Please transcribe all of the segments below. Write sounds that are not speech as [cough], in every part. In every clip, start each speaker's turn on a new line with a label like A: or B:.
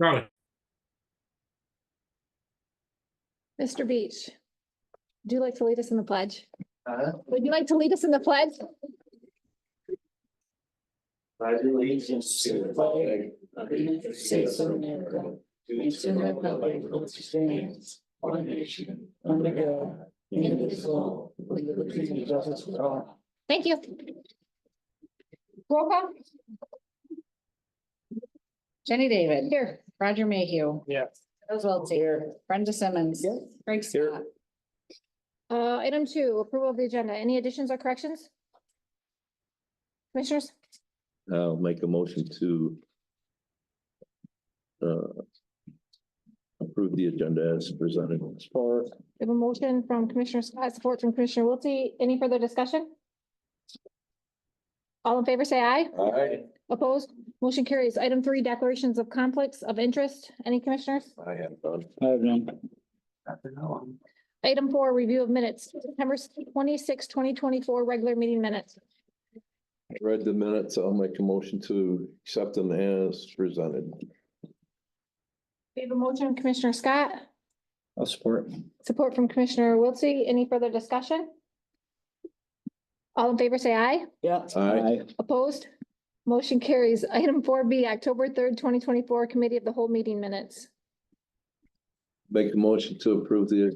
A: Charlie,
B: Mr. Beach, would you like to lead us in the pledge?
C: Uh,
B: Would you like to lead us in the pledge?
C: I do allegiance to the flag of the United States of America. And to the republic for which it stands, one nation, under God, indivisible, with liberty and justice for all.
B: Thank you. Roll call?
D: Jenny David.
B: Here.
D: Roger Mayhew.
C: Yes.
D: Charles Wiltie. Brenda Simmons. Craig Scott.
B: Uh, item two, approval of the agenda. Any additions or corrections? Commissioners,
E: I'll make a motion to uh, approve the agenda as presented.
C: Support.
B: we have a motion from Commissioner Scott, support from Commissioner Wiltie. Any further discussion? All in favor, say aye.
E: Aye.
B: Opposed? Motion carries. Item three, declarations of conflicts of interest. Any commissioners?
E: I have done.
C: I have none.
B: Item four, review of minutes, September 26, 2024, regular meeting minutes.
E: Read the minutes. I'll make a motion to accept them as presented.
B: We have a motion, Commissioner Scott,
C: I'll support.
B: support from Commissioner Wiltse. Any further discussion? All in favor, say aye.
C: Yeah.
E: Aye.
B: Opposed? Motion carries. [laughs] Item four B, October third, twenty twenty-four, Committee of the Whole Meeting Minutes.
E: Make a motion to approve the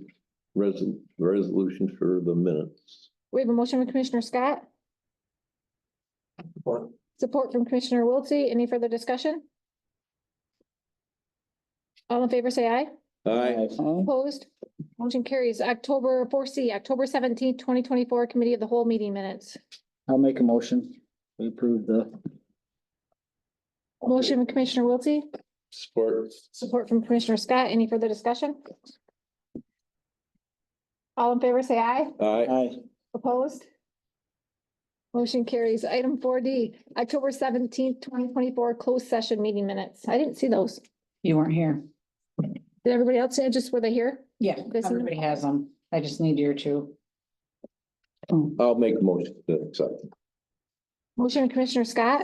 E: resol- resolution for the minutes.
B: We have a motion from Commissioner Scott,
C: Support.
B: support from Commissioner Wiltse. Any further discussion? All in favor, say aye.
E: Aye.
B: Opposed? Motion carries. October four C, October seventeenth, twenty twenty-four, Committee of the Whole Meeting Minutes.
C: I'll make a motion. We approve the.
B: Motion from Commissioner Wiltse,
E: Support.
B: support from Commissioner Scott. Any further discussion? All in favor, say aye.
E: Aye.
C: Aye.
B: Opposed? Motion carries. Item four D, October seventeenth, twenty twenty-four, closed session meeting minutes. I didn't see those.
D: You weren't here.
B: Did everybody else say just were they here?
D: Yeah,
B: This is-
D: everybody has them. I just need your two.
E: I'll make a motion to accept.
B: Motion from Commissioner Scott,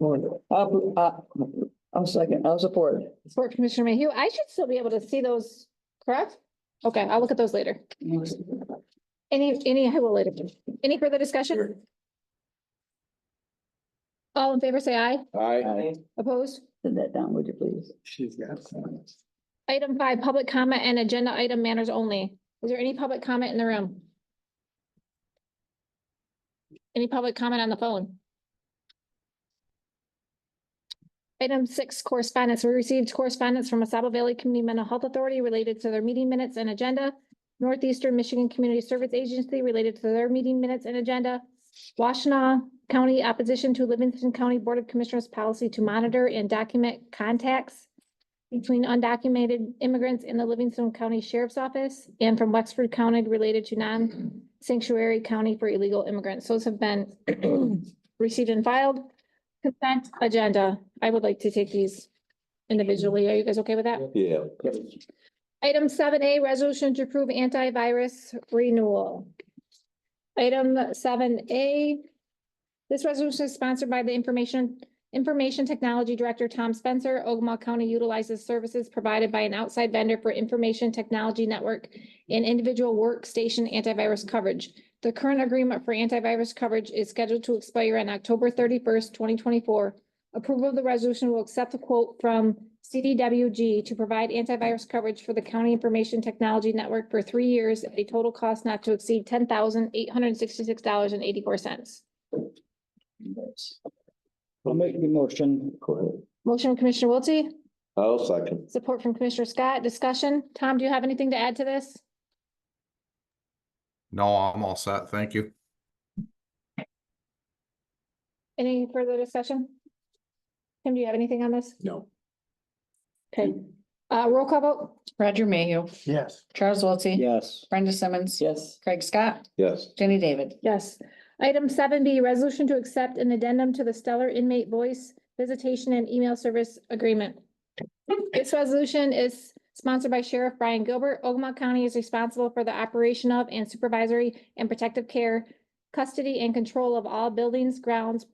F: I'll, uh, I'll second, I'll support.
B: support from Commissioner Mayhew. I should still be able to see those, correct? Okay, I'll look at those later. Any, any, I will later. Any further discussion? All in favor, say aye.
E: Aye.
F: Aye.
B: Opposed?
F: Send that down, would you please?
C: She's got some.
B: Item five, public comment and agenda item manners only. Is there any public comment in the room? Any public comment on the phone? Item six, correspondence. We received correspondence from Asaba Valley Community Mental Health Authority related to their meeting minutes and agenda. Northeastern Michigan Community Service Agency related to their meeting minutes and agenda. Washtenaw County Opposition to Livingston County Board of Commissioners Policy to Monitor and Document Contacts between undocumented immigrants in the Livingston County Sheriff's Office and from Wexford County related to non-sanctuary county for illegal immigrants. Those have been [clears throat] received and filed. Consent agenda. I would like to take these individually. Are you guys okay with that?
E: Yeah.
B: Item seven A, resolution to approve antivirus renewal. Item seven A. This resolution is sponsored by the Information, Information Technology Director Tom Spencer. Ogama County utilizes services provided by an outside vendor for information technology network and individual workstation antivirus coverage. The current agreement for antivirus coverage is scheduled to expire on October thirty-first, twenty twenty-four. Approval of the resolution will accept the quote from CDWG to provide antivirus coverage for the County Information Technology Network for three years at a total cost not to exceed ten thousand eight hundred and sixty-six dollars and eighty-four cents.
C: I'll make the motion.
E: Go ahead.
B: Motion from Commissioner Wiltie,
E: I'll second.
B: support from Commissioner Scott. Discussion. Tom, do you have anything to add to this?
G: No, I'm all set. Thank you.
B: Any further discussion? Tim, do you have anything on this?
C: No.
B: Okay, uh, roll call vote.
D: Roger Mayhew.
C: Yes.
D: Charles Wiltie.
C: Yes.
D: Brenda Simmons.
F: Yes.
D: Craig Scott.
E: Yes.
D: Jenny David.
B: Yes. Item seven B, resolution to accept an addendum to the Stellar Inmate Voice Visitation and Email Service Agreement. This resolution is sponsored by Sheriff Brian Gilbert. Ogama County is responsible for the operation of and supervisory and protective care, custody and control of all buildings, grounds,